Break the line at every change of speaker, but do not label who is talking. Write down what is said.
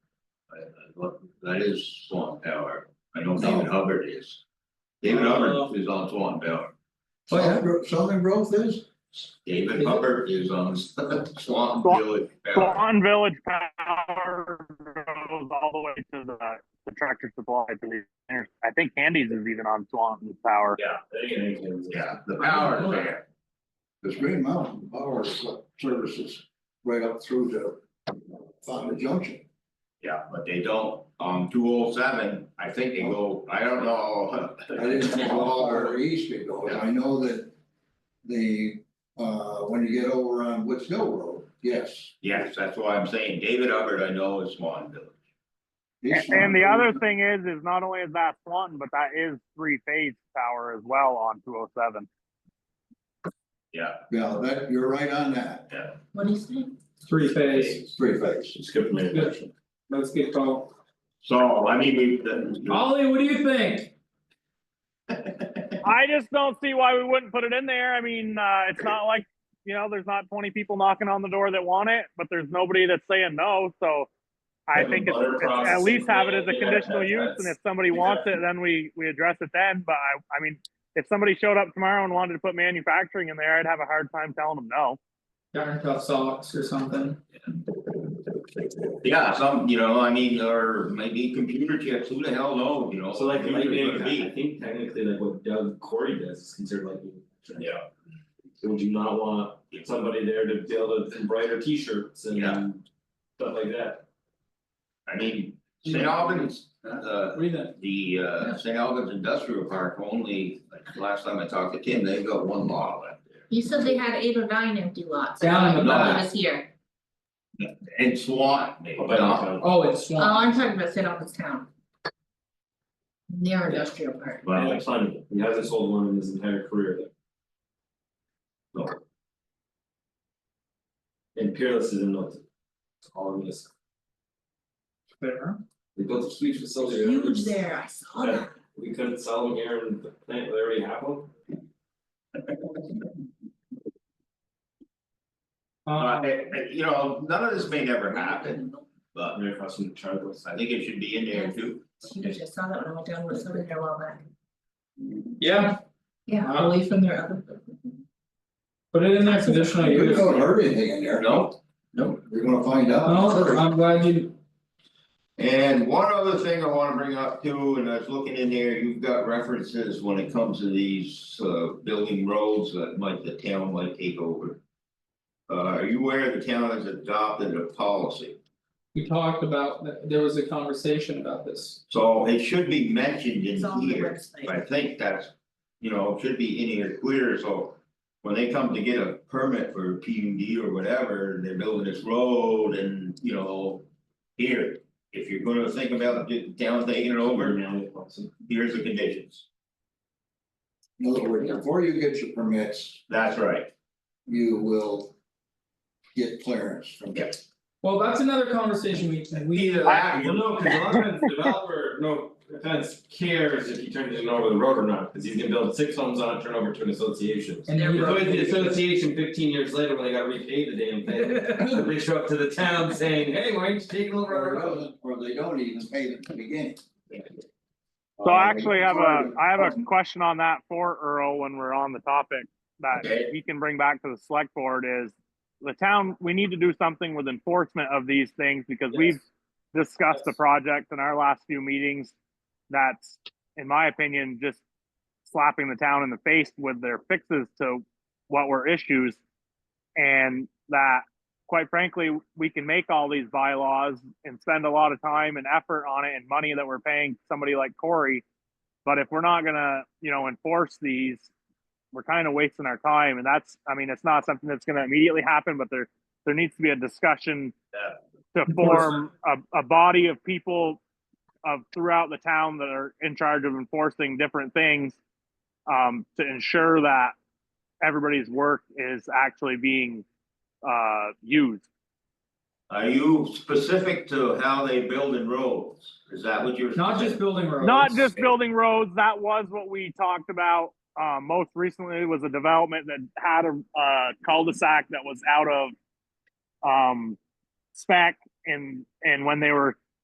well, that is Swan Tower, I know David Hubbard is. David
Oh.
Hubbard is on Swan Tower,
Oh, yeah, Gro- Southern Grove is,
David Hubbard is on Swan
Swan-
Village Tower.
Swan Village Power goes all the way to the, the tractor supply to the, inter- I think Andy's is even on Swan Power.
Yeah. they can make it.
Yeah, the power is there,
there's Green Mountain Power uh, Services right up through to Fonda Junction.
yeah, but they don't, um, two oh seven, I think they go, I don't know.
I didn't know how far east it goes, I know that the, uh, when you get over on Woods Hill Road, yes.
Yes, that's why I'm saying, David Hubbard, I know is Swan Village.
East
And, and the
Mountain.
other thing is, is not only is that Swan, but that is three phase power as well on two oh seven.
Yeah,
Yeah, that, you're right on that,
What do you say?
Three phase,
three phase.
skip me
let's get going.
So, I mean, we, the,
Ollie, what do you think?
I just don't see why we wouldn't put it in there. I mean, uh, it's not like, you know, there's not twenty people knocking on the door that want it, but there's nobody that's saying no, so. I
Have a
think it's,
butter
it's- at
processing
least have it as a
plant, yeah,
conditional use, and
that's-
if somebody wants it, then we, we address it then, but I, I mean. If somebody showed up tomorrow and wanted to put manufacturing in there, I'd have a hard time telling them no.
Darn tough socks or something.
yeah, some, you know, I mean, or maybe computer chips, who the hell knows, you know?
So like,
Computer's
lightning,
gonna
I
be.
think technically like what Doug Corey does is considered lightning.
Yeah,
So Would you not want somebody there to be able to embroider T-shirts
Yeah.
and stuff like that?
I mean, St. Albans, uh,
What do you think?
the, uh, St. Albans Industrial Park only, like, last time I talked to Tim, they've got one lot left there.
You said they had eight or nine empty lots.
Down in the
I thought it
back.
was here.
And Swan, maybe,
Up by
not,
downtown.
Oh, it's
Oh,
Swan.
I'm talking about St. Albans Town. Near industrial park.
And
but,
like climbing, he hasn't sold one in his entire career though.
No.
And Peerless is in Milton. That's All in this,
Fair.
they built a huge facility. there.
Huge there, I saw
Yeah.
that.
We couldn't sell them here in the plant, they already have them.
uh,
Um,
eh, eh, you know, none of this may never happen, but
Right across from the Chargos.
I think it should be in there too.
It's huge, I saw that when I went down, was over there a while back.
yeah,
Yeah,
Wow.
away from their other.
put it in there conditional
You
use.
don't hurt anything in there.
No,
Nope. We're gonna find out.
No, I'm glad you
and one other thing I wanna bring up too, and I was looking in there, you've got references when it comes to these, uh, building roads that might, the town might take over. Uh, are you aware the town has adopted a policy?
We talked about, th- there was a conversation about this.
So it should be mentioned in
It's on the
here,
website.
I think that's, you know, it should be in here clear, so. When they come to get a permit for P U D or whatever, and they're building this road and, you know. Here, if you're gonna think about the town taking it
Over
over,
now, it's awesome.
here's the conditions,
In other words, before you get your permits,
that's right,
you will get clearance from.
Yeah.
Well, that's another conversation we we,
either
I
that,
well,
or-
no, cause a lot of times the developer, no offense, cares if you turn it in over the road or not, cause he's gonna build six homes on it, turn over to an association.
and
If
we-
It's always the association fifteen years later when they gotta repay the damn thing, they show up to the town saying, hey, why aren't you taking over
Or
our
it
road?
doesn't, or they don't even pay them to begin.
So I actually have a,
Um,
I have a question on that for Earl when we're on the topic that
Okay.
he can bring back to the select board is the town, we need to do something with enforcement of these things because we've discussed the
Yes.
project in our last few meetings. That's, in my opinion, just slapping the town in the face with their fixes to what were issues. And that, quite frankly, we can make all these bylaws and spend a lot of time and effort on it and money that we're paying somebody like Corey. But if we're not gonna, you know, enforce these, we're kind of wasting our time. And that's, I mean, it's not something that's gonna immediately happen, but there, there needs to be a discussion to form a, a body of people of throughout the town that are in charge of enforcing different things um, to ensure that everybody's work is actually being uh, used.
Are you specific to how they build in roads, is that what you're?
not just building roads.
Not just building roads. That was what we talked about. Uh, most recently was a development that had a uh, cul-de-sac that was out of um, spec, and and when they were